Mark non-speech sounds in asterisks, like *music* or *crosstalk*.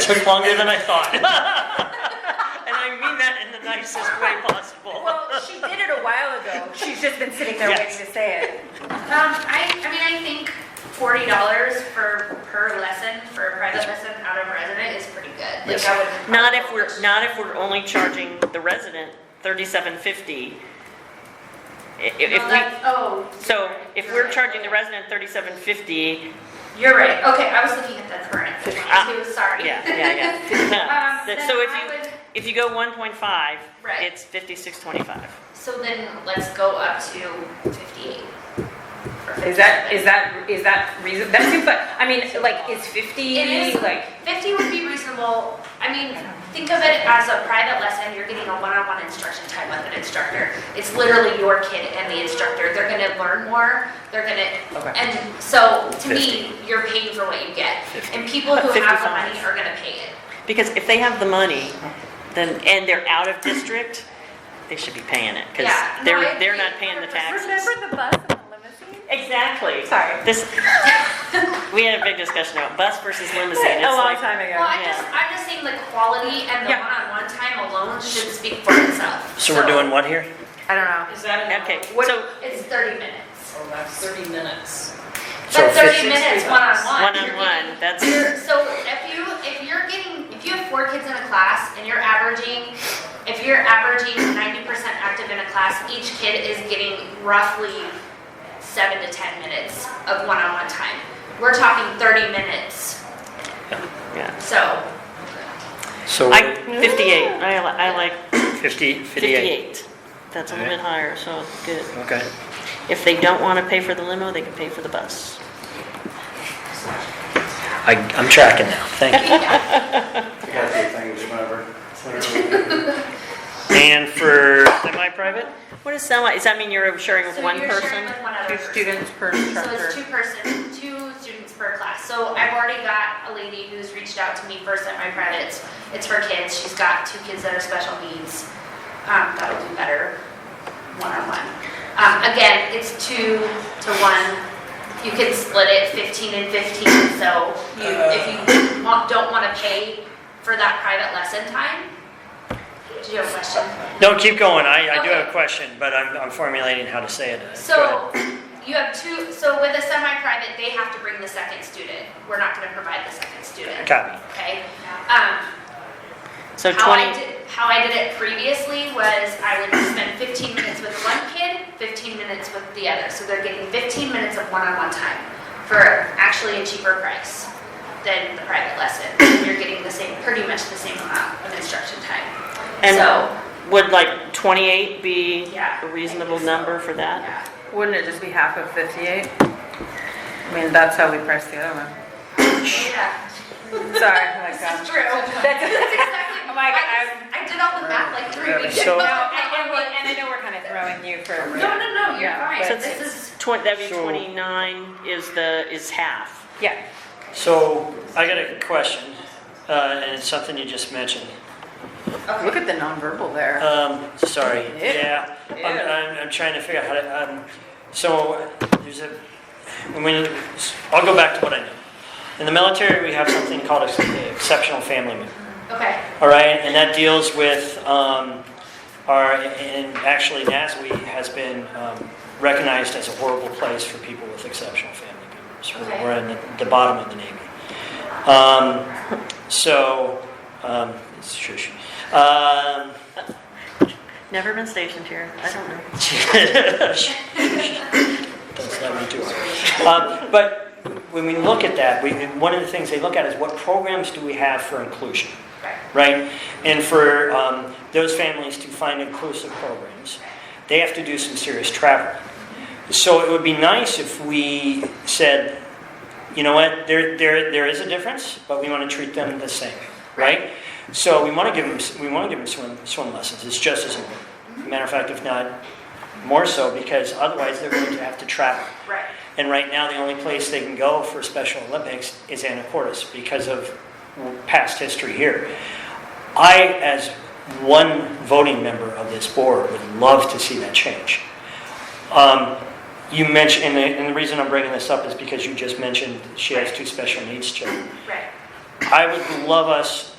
Took longer than I thought. *laughs* And I mean that in the nicest way possible. Well, she did it a while ago. She's just been sitting there Yes. waiting to say it. Um, I, I mean, I think forty dollars for, per lesson, for a private lesson out of resident is pretty good. Like, Yes. I wouldn't- Not if we're, not if we're only charging the resident thirty-seven fifty. If Well, we, that's- Oh. so if we're charging the resident, resident thirty-seven fifty, You're right, okay, I was looking at the current, Ah, twenty-two, sorry. yeah, yeah, *laughs* *laughs* yeah. Um, That- then So if I you, would- if you go one point five, Right. it's fifty-six twenty-five. So then let's go up to fifty-eight. or Is that, 57. is that, is that reason, that seems like, I mean, like, is fifty, It is. like, 50 would be reasonable. I mean, think of it as a private lesson. You're getting a one-on-one instruction time with an instructor. It's literally your kid and the instructor. They're going to learn more. They're going to, Okay. and so to me, you're paying for what you get. And people who But have 55. the money are going to pay it. Because if they have the money, then, and they're out of district, they should be paying it, because Yeah. No, I they're, agree. they're not paying the taxes. remember the bus and the limousine? Exactly. Sorry. This, we had a big discussion about bus versus limousine. It's A long like, time Well, ago. I'm just, I'm just saying the quality and the Yeah. one-on-one time alone should speak for itself. So we're doing what here? I don't know. Is that an okay, hour? so It's 30 minutes. Oh, that's 30 minutes. So But 30 50 minutes bucks. one-on-one. you're getting- one-on-one, that's, You're- So if you, if you're getting, if you have four kids in a class and you're averaging, if you're averaging ninety percent active in a class, each kid is getting roughly seven to ten minutes of one-on-one time. We're talking thirty minutes, yeah. so *laughs* So I, 58, I li- I like 50, 58. 58. That's a little bit higher, so good. Okay. If they don't want to pay for the limo, they can pay for the bus. I, I'm tracking now. *laughs* Thank you. Got the things, whatever. Whatever. And for semi-private? What does semi, does that mean you're sharing with so one you're person? sharing with one other Two person. students per So it's two instructor. person, two students per class. So I've already got a lady who's reached out to me first at my privates. It's for kids. She's got two kids that are special needs. Um, that'll do better one-on-one. Um, again, it's two to one. You can split it fifteen and fifteen, so you, if you want- don't wanna pay for that private lesson time. Do you have a question? No, keep going. I, I do Okay. have a question, but I'm, I'm formulating how to say it. Go ahead. So you have two, so with a semi-private, they have to bring the second student. We're not gonna provide the second student, Copy. okay? Um, So how I 20, did, how I did it previously was I would spend fifteen minutes with one kid, fifteen minutes with the other. So they're getting fifteen minutes of one-on-one time for actually a cheaper price than the private lesson. You're getting the same, pretty much the same amount of instruction time. And- So, would like 28 be Yeah, a reasonable I think so. number for that? yeah. Wouldn't it just be half of fifty-eight? I mean, that's how we priced the other one. Yeah, Sorry, I got- that's true. That's- That's exactly. I'm like, I just- I did all the math like three weeks So- No, ago. I- I and, and we, went- and I know we're kind of throwing you for. No, no, no, you're Yeah, fine. So This is, it's, twen- that'd be So- 29 is the, is half. Yeah. So I got a question, uh, and it's something you just mentioned. Look at the nonverbal there. Um, sorry, Ew. yeah, I'm, Ew. I'm, I'm trying to figure out how to, um, so, there's a, when, I'll go back to what I know. In the military, we have something called ex- exceptional family member, okay, all right? And that deals with, um, our, and actually NASWE has been, um, recognized as a horrible place for people with exceptional family members. We're- Okay. We're in the- the bottom of the Navy. Um, so, um, it's shush. Um, Never been stationed here, I don't know. Don't let me do it. *laughs* Um, But when we look at that, we, one of the things they look at is what programs do we have for inclusion, right. right? And for um, those families to find inclusive programs, they have to do some serious travel. So it would be nice if we said, you know what, there, there, there is a difference, but we want to treat them the same, right? So we want to give them, we want to give them swim, swim lessons. It's just as important. Matter of fact, if not more so, because otherwise they're going to have to travel. Right. And right now, the only place they can go for Special Olympics is Anacortes because of past history here. I, as one voting member of this board, would love to see that change. Um, You mentioned, and the, and the reason I'm bringing this up is because you just mentioned she has two special needs children. Right. I would love us